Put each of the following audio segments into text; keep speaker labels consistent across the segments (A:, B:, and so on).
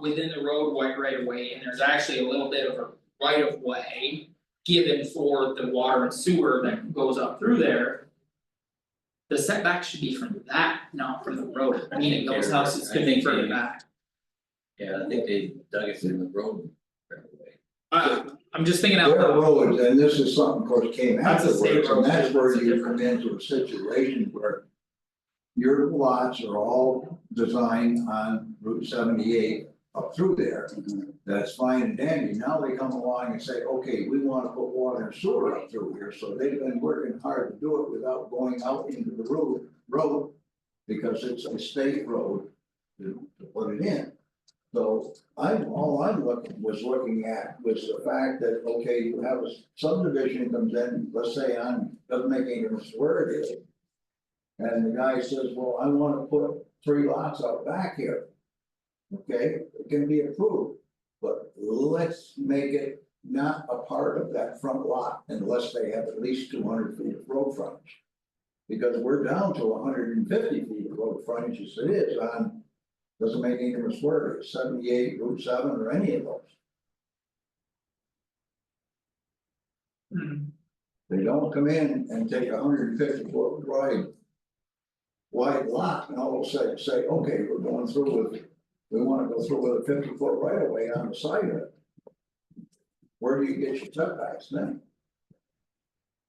A: within the roadway right of way, and there's actually a little bit of a right of way. Given for the water and sewer that goes up through there. The setback should be from that, not from the road, I mean, those houses could be further back.
B: Yeah, I think they dug it in the road right away.
A: Uh, I'm just thinking out
C: There are
A: loud.
C: roads, and this is something, of course, came
A: That's a state
C: afterwards, and
A: road,
C: that's where
A: it's a
C: you
A: different-
C: come into a situation where. Your lots are all designed on Route seventy eight up through there. That's fine and dandy, now they come along and say, okay, we wanna put water and sewer up through here, so they've been working hard to do it without going out into the road, road. Because it's a state road to to put it in. So I'm, all I'm looking, was looking at was the fact that, okay, you have a subdivision comes in, let's say on, doesn't make any difference where it is. And the guy says, well, I wanna put three lots out back here. Okay, it can be approved, but let's make it not a part of that front lot unless they have at least two hundred feet of road frontage. Because we're down to hundred and fifty feet of road frontage as it is on doesn't make any difference where, it is, seventy-eight, Route seven, or any of those,
A: Hmm.
C: they don't come in and take a hundred and fifty foot wide. Wide lot, and all of a sudden say, okay, we're going through with, we wanna go through with a fifty foot right of way on the side of it. Where do you get your setbacks then?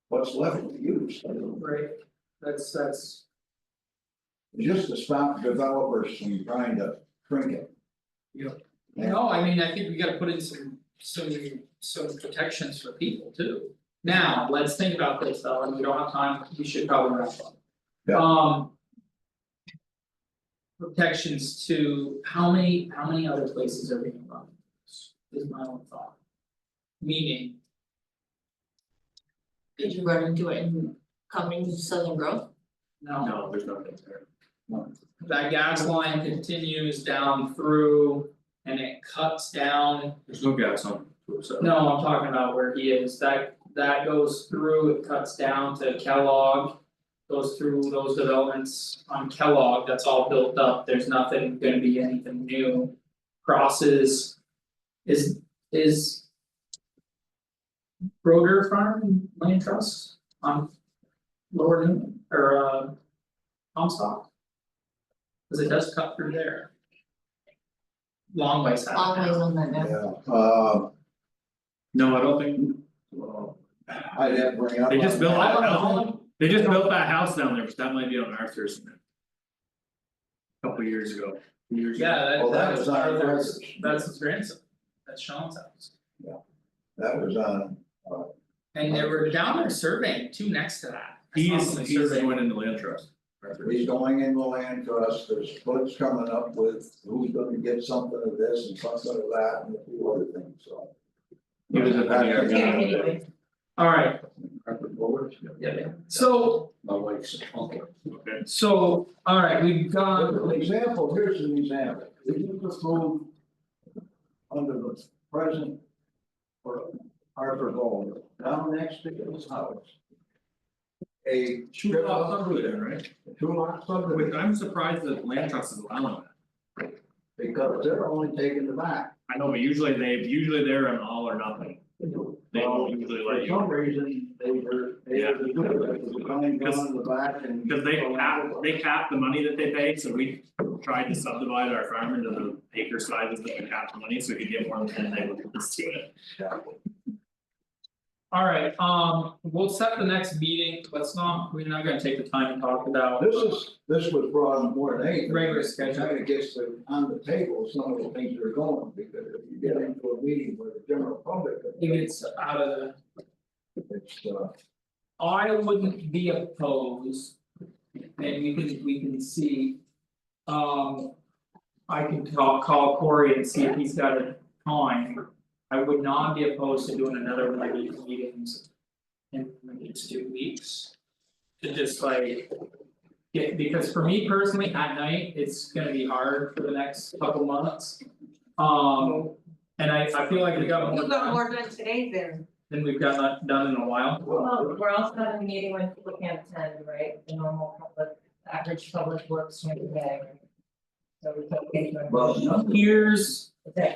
C: What's left to use,
A: Right, that's that's,
C: just to stop developers from trying to shrink it.
A: no, I mean, I think we gotta put in some some some protections for people too. Now, let's think about this though, and we don't have time, we should probably wrap up.
C: Yeah.
A: Um. Protections to, how many, how many other places are we gonna run? this? Is my own thought. Meaning,
D: Did you run into it in Cummings Southern Grove?
A: no,
B: No, there's nothing there.
A: that gas line continues down through and it cuts down
B: There's no gas on two oh seven.
A: No, I'm talking about where he is, that that goes through, it cuts down to Kellogg. Goes through those developments on Kellogg, that's all built up, there's nothing gonna be anything new. Crosses. Is is. Broder Farm Land Trust on Lower Newman or uh. Comstock. Cause it does cut through there. Long ways out.
D: Long ways on that now.
C: Yeah. Uh,
E: No, I don't think,
C: well, I'd have to bring up.
E: They just
C: on
E: built-
C: that.
A: I don't know,
E: they just built that house down there, but that might be on Arthur's. Couple years ago, few years ago.
A: Yeah, that
C: Well,
A: that
C: that
A: was
C: was our
A: Arthur's,
C: brothers.
A: that's his grandson, that's Sean's house.
C: That was on,
A: And they were down there surveying too next to that. I
E: He
A: saw
E: is,
A: somebody
E: he is
A: surveying.
E: going into land trust, Arthur.
C: he's going in the land trust, there's splits coming up with who's gonna get something of this and something of that and a few other things, so.
E: He was at the
C: That's-
E: DRB.
D: Yeah, anyway,
A: Alright,
B: Proper boards, yeah.
A: so
B: My wife's uncle.
E: Okay.
A: so, alright, we've
C: Look, An
A: gone,
C: example, here's an example, if you just move under the present or Harper Gold, down next to his house. A
E: Two lots under there, right?
C: two lot
E: Wait,
C: subdivision,
E: I'm surprised that land trust is allowing that.
C: because they're only taking the back.
E: I know, but usually they, usually they're an all or nothing, they
C: Well,
E: don't usually
C: For
E: let you,
C: some reason, they were, they
E: Yeah.
C: were the good ones, the kind down in the back and.
E: because they cap, they cap the money that they pay, so we tried to subdivide our farm into the acre sizes that we cap the money, so we could get more than they would do it.
A: alright, um, we'll set the next meeting, let's not, we're not gonna take the time to talk about.
C: This is, this was brought up more than anything.
A: Regular schedule.
C: Kind of gets the- on the table, some of the things that are going, because if you get into a meeting with the general public.
A: It gets out of the.
C: It's, uh,
A: I wouldn't be opposed. And we can, we can see. Um. I can call, call Corey and see if he's got a time. I would not be opposed to doing another one of these meetings. In the next two weeks. To just like. Get, because for me personally, at night, it's gonna be hard for the next couple months. Um, and I I feel like we got more
D: You got
A: done
D: more done today than.
A: than we've got done in a while.
D: Well, we're also having a meeting when people can't attend, right, the normal public, average public works during the day. So we can.
C: Well, no,
A: Here's